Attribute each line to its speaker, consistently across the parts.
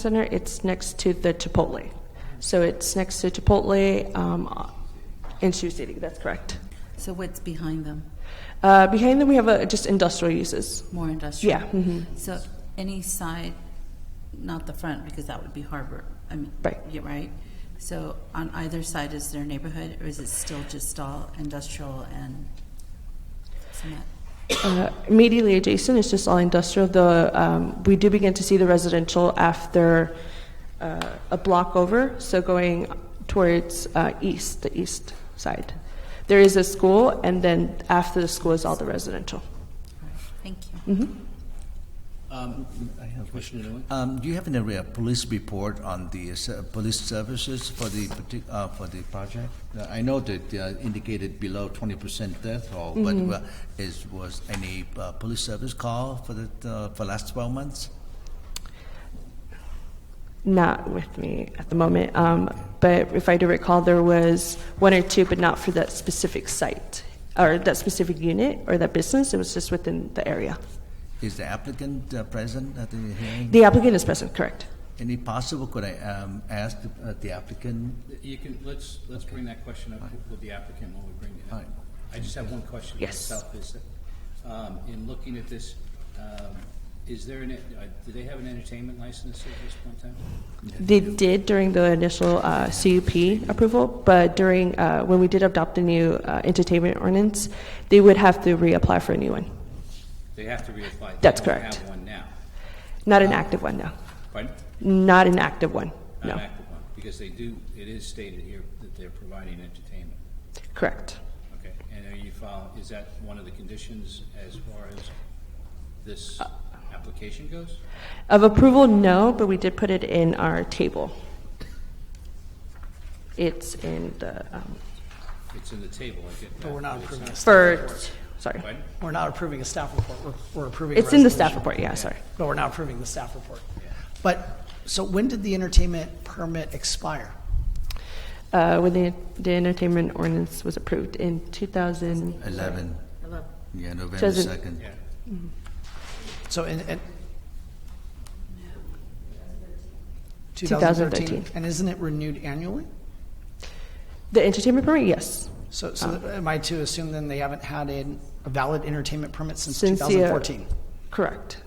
Speaker 1: Center, it's next to the Chipotle. So it's next to Chipotle um, in Sioux City, that's correct.
Speaker 2: So what's behind them?
Speaker 1: Uh, behind them, we have uh, just industrial uses.
Speaker 2: More industrial?
Speaker 1: Yeah, mhm.
Speaker 2: So any side, not the front, because that would be harbor, I mean.
Speaker 1: Right.
Speaker 2: Yeah, right? So on either side, is there neighborhood, or is it still just all industrial and cement?
Speaker 1: Uh, immediately adjacent is just all industrial. The, um, we do begin to see the residential after uh, a block over, so going towards uh, east, the east side. There is a school, and then after the school is all the residential.
Speaker 2: Thank you.
Speaker 3: Um, Um, do you have any uh, police report on the uh, se- police services for the partic- uh, for the project? Uh, I know that uh, indicated below twenty percent death toll, but uh, is was any uh, police service call for the uh, for last twelve months?
Speaker 1: not with me at the moment. Um, but if I do recall, there was one or two, but not for that specific site or that specific unit or that business. It was just within the area.
Speaker 3: Is the applicant uh, present at the hearing?
Speaker 1: The applicant is present, correct?
Speaker 3: any possible? Could I um, ask uh, the applicant?
Speaker 4: You can, let's, let's bring that question up with the applicant when we bring it up.
Speaker 3: Fine.
Speaker 4: I just have one question
Speaker 1: Yes.
Speaker 4: myself, is that, um, in looking at this, um, is there an, uh, do they have an entertainment license at this point in time?
Speaker 1: They did during the initial uh, CUP approval, but during uh, when we did adopt the new uh, entertainment ordinance, they would have to reapply for a new one.
Speaker 4: They have to reapply. They
Speaker 1: That's
Speaker 4: don't
Speaker 1: correct.
Speaker 4: have one now,
Speaker 1: Not an active one, no.
Speaker 4: pardon?
Speaker 1: Not an active one,
Speaker 4: Not
Speaker 1: no.
Speaker 4: an active one, because they do, it is stated here that they're providing entertainment,
Speaker 1: Correct.
Speaker 4: okay? And are you follow, is that one of the conditions as far as this
Speaker 1: Uh,
Speaker 4: application goes?
Speaker 1: Of approval, no, but we did put it in our table. It's in the, um,
Speaker 4: It's in the table, I get that.
Speaker 5: But we're not
Speaker 4: it's
Speaker 5: approving a staff
Speaker 1: for,
Speaker 5: report.
Speaker 1: sorry.
Speaker 4: Pardon?
Speaker 5: We're not approving a staff report. We're, we're approving. a
Speaker 1: It's in the staff
Speaker 5: resolution.
Speaker 1: report, yeah, sorry.
Speaker 5: But we're not approving the staff report. But, so when did the entertainment permit expire?
Speaker 1: Uh, When the the entertainment ordinance was approved in 2000,
Speaker 3: Eleven. Yeah, November
Speaker 1: Doesn't-
Speaker 3: second.
Speaker 4: Yeah.
Speaker 5: So in, in.
Speaker 1: 2013.
Speaker 5: And isn't it renewed annually?
Speaker 1: the entertainment permit, yes.
Speaker 5: So, so
Speaker 1: Uh.
Speaker 5: am I to assume then they haven't had a a valid entertainment permit since
Speaker 1: Since the, uh,
Speaker 5: 2014?
Speaker 1: Correct,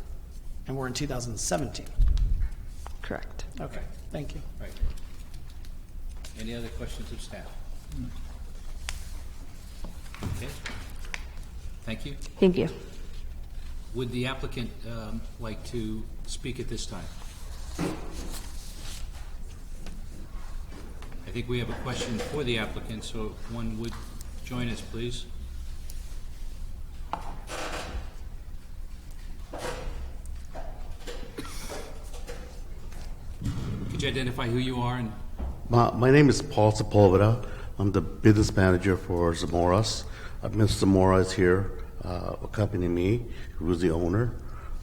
Speaker 5: And we're in 2017?
Speaker 1: correct.
Speaker 5: Okay, thank you.
Speaker 4: Right. Any other questions of staff? Okay. Thank you.
Speaker 1: Thank you.
Speaker 4: Would the applicant um, like to speak at this time? I think we have a question for the applicant, so if one would join us, please. Could you identify who you are and
Speaker 6: My, my name is Paul Sepulveda. I'm the business manager for Zamoras. Uh, Ms. Zamora is here uh, accompanying me, who's the owner.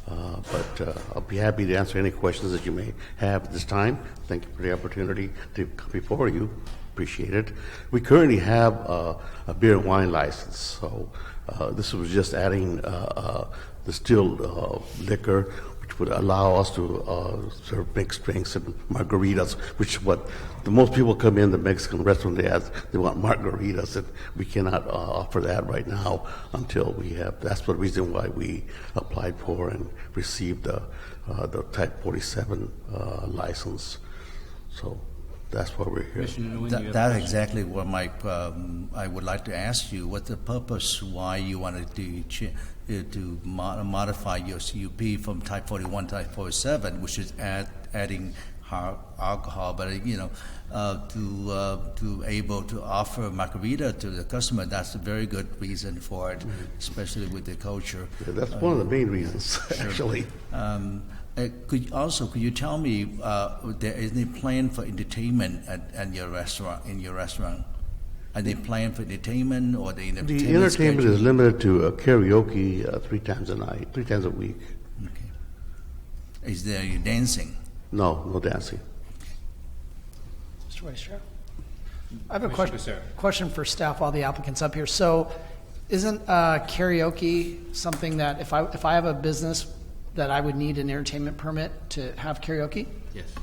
Speaker 6: Uh, but uh, I'll be happy to answer any questions that you may have at this time. Thank you for the opportunity to come before you. Appreciate it. We currently have uh, a beer and wine license, so uh, this was just adding uh, uh, distilled uh, liquor, which would allow us to uh, serve mixed drinks and margaritas, which is what the most people come in the Mexican restaurant they ask they want margaritas, and we cannot uh, offer that right now until we have. That's the reason why we applied for and received the uh, the Type 47 uh, license. So that's why we're here.
Speaker 4: Commissioner Nguyen? you
Speaker 3: That,
Speaker 4: have
Speaker 3: that's
Speaker 4: questions?
Speaker 3: exactly what my, um, I would like to ask you, what the purpose, why you wanted to, ch- uh, to mo- modify your CUP from type 41 to type 47, which is add, adding har- alcohol, but, uh, you know, uh, to, uh, to able to offer margarita to the customer, that's a very good reason for it, especially with the culture.
Speaker 6: Yeah, that's one of the main reasons, actually.
Speaker 3: Um, uh, Could, also, could you tell me, uh, there is any plan for entertainment at, at your restaurant, in your restaurant? Are they planning for entertainment or the entertainment
Speaker 6: The entertainment
Speaker 3: schedule?
Speaker 6: is limited to uh, karaoke uh, three times a night, three times a week.
Speaker 3: Okay. Is there any dancing?
Speaker 6: No, no dancing.
Speaker 5: Mr. Weiss, I have a
Speaker 4: Commissioner
Speaker 5: question,
Speaker 4: Becerra.
Speaker 5: question for staff while the applicant's up here. So isn't uh, karaoke something that if I, if I have a business that I would need an entertainment permit to have karaoke?
Speaker 4: Yes.